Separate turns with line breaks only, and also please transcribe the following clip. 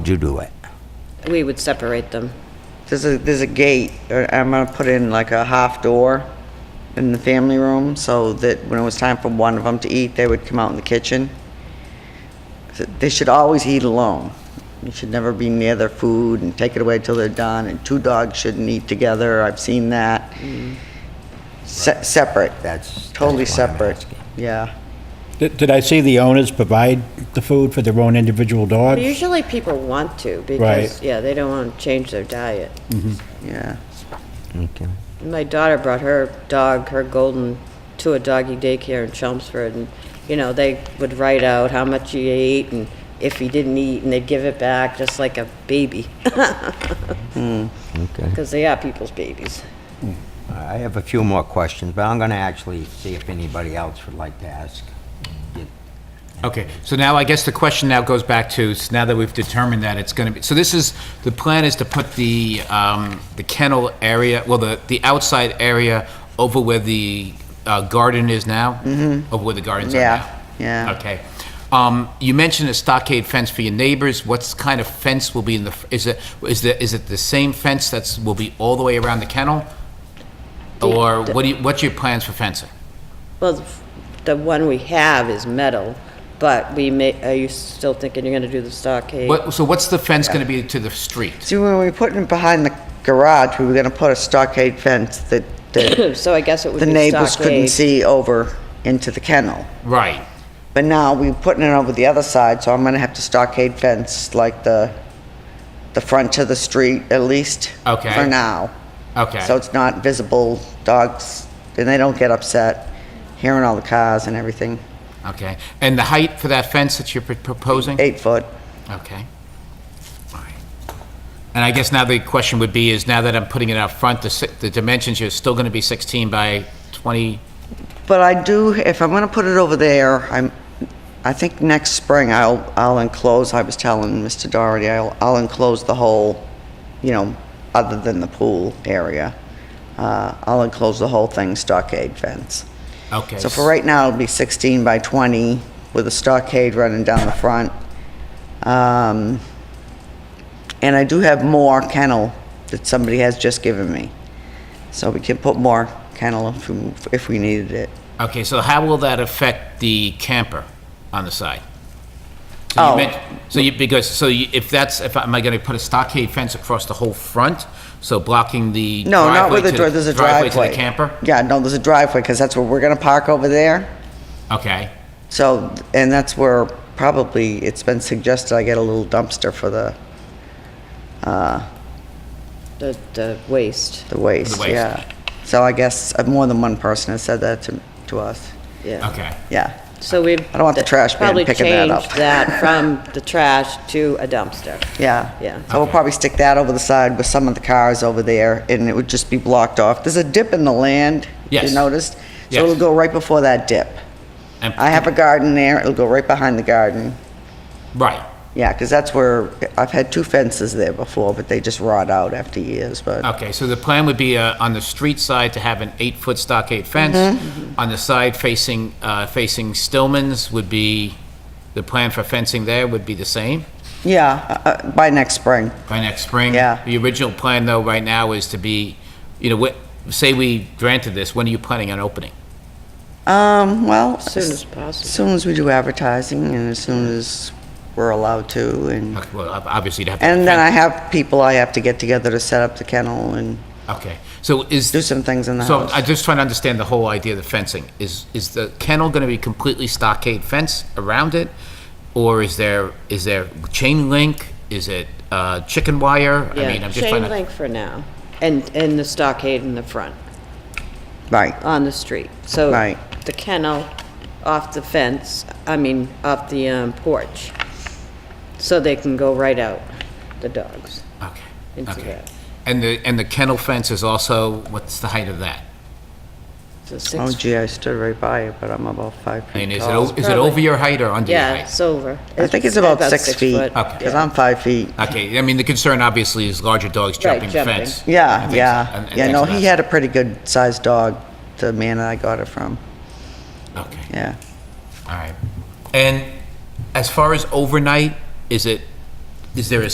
you do it?
We would separate them.
There's a, there's a gate, or I'm gonna put in like a half door in the family room, so that when it was time for one of them to eat, they would come out in the kitchen. So They should always eat alone. You should never be near their food and take it away till they're done, and two dogs shouldn't eat together, I've seen that. Se- separate.
That's-
Totally
Mm. that's what I'm
separate,
asking.
yeah.
Did did I see the owners provide the food for their own individual
But
dogs?
usually people want to because,
Right.
yeah, they don't want to change their diet.
Yeah.
Okay.
My daughter brought her dog, her golden, to a doggy daycare in Chelmsford, and, you know, they would write out how much he ate and if he didn't eat, and they'd give it back just like a baby.
Okay.
Because they are people's babies.
I have a few more questions, but I'm going to actually see if anybody else would like to ask.
Okay, so now I guess the question now goes back to, s- now that we've determined that it's going to be, so this is, the plan is to put the, um, the kennel area, well, the, the outside area over where the uh, garden is now? Mm-hmm. Over where the gardens are
Yeah,
now?
yeah.
Okay. Um, you mentioned a stockade fence for your neighbors. What's kind of fence will be in the, f- is it, is the, is it the same fence that's, will be all the way around the kennel? Or what do you, what's your plans for fencing?
Well, the f- the one we have is metal, but we may, are you still thinking you're going to do the stockade?
What, so what's the fence going to be to the street?
See, when we put it behind the garage, we were gonna put a stockade fence that, that
So I guess it would be
the
stockade.
neighbors couldn't see over into the kennel.
Right.
But now we're putting it over the other side, so I'm gonna have to stockade fence like the, the front of the street at least.
Okay.
For now.
Okay.
So it's not visible, dogs, and they don't get upset hearing all the cars and everything.
Okay, and the height for that fence that you're pr- proposing?
Eight foot.
Okay. All right. And I guess now the question would be is now that I'm putting it out front, the, si- the dimensions, you're still going to be 16 by 20?
But I do, if I'm gonna put it over there, I'm, I think next spring I'll, I'll enclose, I was telling Mr. Doherty, I'll, I'll enclose the whole, you know, other than the pool area. Uh, I'll enclose the whole thing stockade fence.
Okay.
So for right now, it'll be 16 by 20 with a stockade running down the front. Um, And I do have more kennel that somebody has just given me. So we can put more kennel if we- if we needed it.
Okay, so how will that affect the camper on the side? So you
Oh.
meant- So you, because, so you, if that's, if, I- am I going to put a stockade fence across the whole front? So blocking the
No, not
driveway
with a
to
door, there's a
Driveway
driveway.
to the camper?
Yeah, no, there's a driveway, because that's where we're gonna park over there.
Okay,
So, and that's where probably, it's been suggested I get a little dumpster for the,
The, the waste,
the waste,
waste.
yeah. So I guess uh, more than one person has said that to, to us,
yeah.
okay.
yeah.
So we.
I don't want the trash man picking that up.
Probably change that from the trash to a dumpster.
Yeah.
Yeah.
So we'll
Okay.
probably stick that over the side with some of the cars over there, and it would just be blocked off. There's a dip in the land.
Yes.
You noticed?
Yes.
So it'll go right before that dip.
And-
I have a garden there, it'll go right behind the garden.
Right,
Yeah, because that's where, I've had two fences there before, but they just rot out after years, but,
Okay, so the plan would be uh, on the street side to have an eight-foot stockade fence.
Mm-hmm.
On the side facing, uh, facing Stillman's would be, the plan for fencing there would be the same
yeah, uh, uh, by next spring.
by next spring?
Yeah.
The original plan, though, right now is to be, you know, what- say we granted this, when are you planning on opening?
Um, well.
Soon as
As
possible.
soon as we do advertising, and as soon as we're allowed to, and,
Okay, Well, ob- obviously, you'd have to...
and then I
defend-
have people I have to get together to set up the kennel and
Okay, so is...
do some things in the
So
house.
I'm just trying to understand the whole idea of the fencing. Is, is the kennel going to be completely stockade fence around it? Or is there, is there chain link? Is it uh, chicken wire? I mean,
Yeah,
I'm just trying
chain
to.
link for now, and, and the stockade in the front,
Right.
on the street. So
Right.
the kennel off the fence, I mean, off the um, porch, so they can go right out, the dogs.
Okay,
into
okay.
that.
And the, and the kennel fence is also, what's the height of that?
So
Oh
six,
gee, I stood right by it, but I'm about five
I mean,
feet
is it,
tall.
o- is it over your height or under your
yeah,
height?
it's over.
I think it's about six feet,
foot.
Okay.
because I'm five feet.
Okay, I mean, the concern obviously is larger dogs jumping the
jumping.
fence. I
Yeah,
think so. And-
yeah.
and
Yeah,
things
no,
of
he
that
had a pretty good sized dog, the man that I got it from,
sort. Okay.
yeah.
All right. And as far as overnight, is it, is there a